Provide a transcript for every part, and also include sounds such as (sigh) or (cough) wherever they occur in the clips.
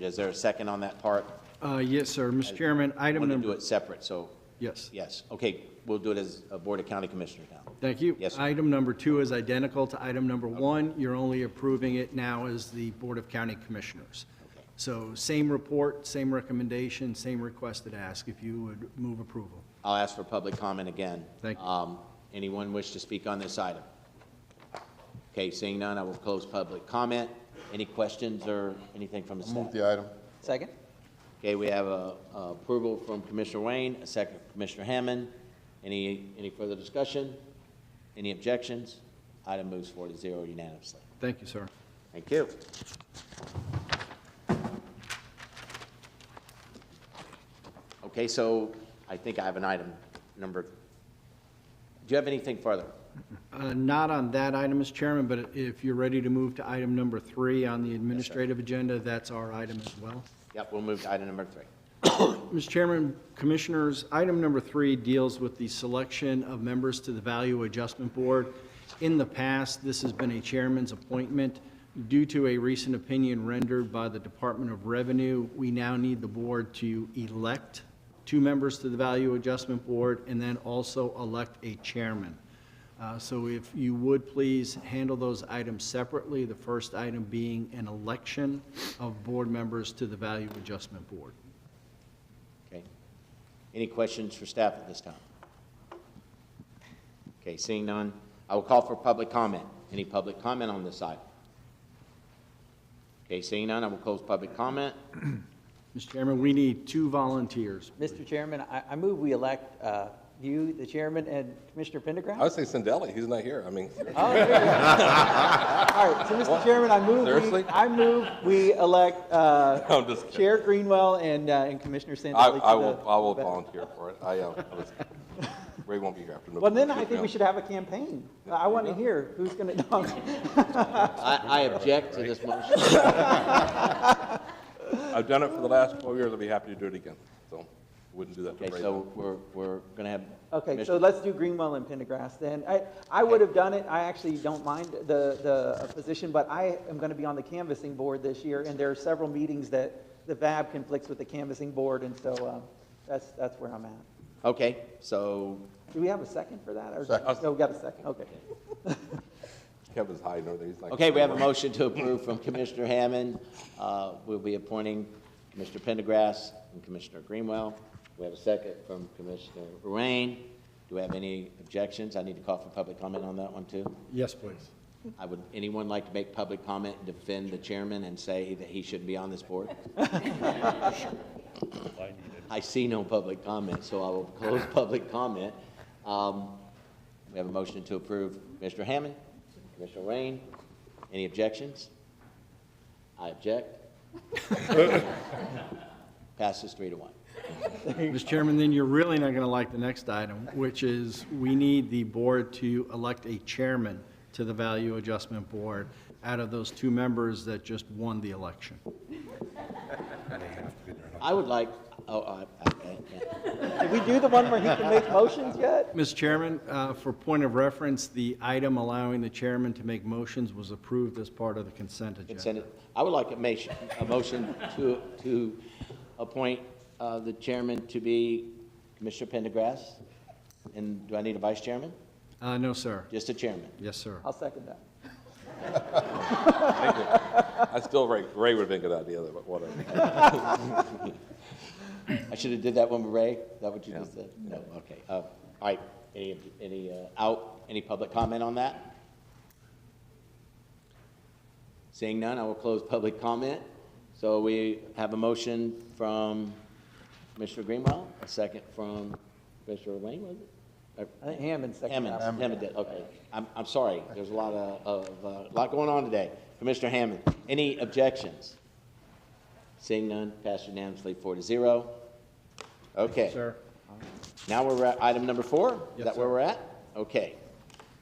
Is there a second on that part? Uh, Yes, sir. Mr. Chairman, I item want to do number, it separate, so, yes, yes, okay, we'll do it as a Board of County Commissioners now. thank you. Yes, sir. Item number two is identical to item number one. You're only approving it now as the Board of County Commissioners. So same report, same recommendation, same requested ask, if you would move approval. I'll ask for public comment again. Thank you. Um, Anyone wish to speak on this item? Okay, seeing none, I will close public comment. Any questions or anything from the staff? Move the item. Second? Okay, we have a a approval from Commissioner Wayne, a second from Commissioner Hammond. Any, any further discussion? Any objections? Item moves four to zero unanimously. Thank you, sir. Thank you. Okay, so I think I have an item number, do you have anything further? Uh, Not on that item, Mr. Chairman, but if you're ready to move to item number three on the administrative agenda, that's our item as well. Yep, we'll move to item number three. Mr. Chairman, Commissioners, item number three deals with the selection of members to the Value Adjustment Board. In the past, this has been a chairman's appointment. Due to a recent opinion rendered by the Department of Revenue, we now need the board to elect two members to the Value Adjustment Board and then also elect a chairman. Uh, So if you would please handle those items separately, the first item being an election of board members to the Value Adjustment Board. Okay. Any questions for staff at this time? Okay, seeing none, I will call for public comment. Any public comment on this item? Okay, seeing none, I will close public comment. Mr. Chairman, we need two volunteers. Mr. Chairman, I, I move we elect uh, you, the chairman, and Commissioner I Pendergrass. would say Sandelli, he's not here, I mean, (laughs) Oh, there you go. All right, so Mr. Chairman, I move, we- Seriously? I move we elect uh, I'm just kidding. Chair Greenwell and, uh, and Commissioner I, Sandelli. to I will, the- I will volunteer for it, I, uh, I was- Ray won't be here after. Well, then I think we should have a campaign. I want to hear who's (laughs) going to, I, I object to this motion. I've done it for the last twelve years, I'd be happy to do it again, so, wouldn't do that to Okay, Ray. so we're, we're gonna have. Okay, so Commissioner- let's do Greenwell and Pendergrass then. I, I would have done it, I actually don't mind the, the uh, position, but I am going to be on the canvassing board this year, and there are several meetings that the VAB conflicts with the canvassing board, and so um, that's, that's where I'm at. Okay, so, Do we have a second for that? or- Second. No, we got a second, okay. Kevin's hiding over there, he's like. okay, we have a motion to approve from Commissioner Hammond. Uh, we'll be appointing Commissioner Pendergrass and Commissioner Greenwell. We have a second from Commissioner Rain. Do we have any objections? I need to call for public comment on that one too. Yes, please. I would, anyone like to make public comment and defend the chairman and say that he shouldn't be on this board? I see no public comment, so I will close public comment. Um, We have a motion to approve Mr. Hammond, Commissioner Rain. Any objections? I object. Passes three to one. Mr. Chairman, then you're really not going to like the next item, which is we need the board to elect a chairman to the Value Adjustment Board out of those two members that just won the election. I would like, oh, I, I, I- yeah. Did we do the one where he can make motions yet? Mr. Chairman, uh, for point of reference, the item allowing the chairman to make motions was approved as part of the consent agenda. Consent- I would like a motion, a motion to, to appoint uh, the chairman to be Commissioner Pendergrass. And do I need a vice chairman? Uh, No, sir. Just a chairman. Yes, sir. I'll second that. Thank you. I still, Ray, Ray would've been a good idea, but whatever. I should have did that one with Ray. Is that what you just said? No, okay. Uh, All right, any, any uh, out, any public comment on that? Seeing none, I will close public comment. So we have a motion from Commissioner Greenwell, a second from Commissioner Wayne, was it? Uh, Or- I think Hammond seconded that. Hammond, Hammond did, okay. I'm, I'm sorry, there's a lot of, of, uh, lot going on today. Commissioner Hammond, any objections? Seeing none, passed unanimously, four to zero. Okay. Sir. Now we're at item number four? Is that where we're at? Okay.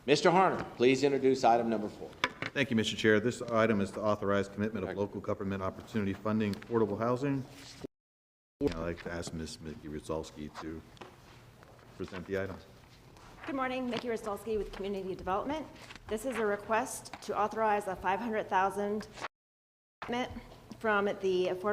Mr. Harner, please introduce item number four. Thank you, Mr. Chair. This item is to authorize commitment of local government opportunity funding affordable housing. I'd like to ask Ms. Mickey Rosalsky to present the item. Good morning, Mickey Rosalsky with Community Development. This is a request to authorize a $500,000 commitment from the Affordable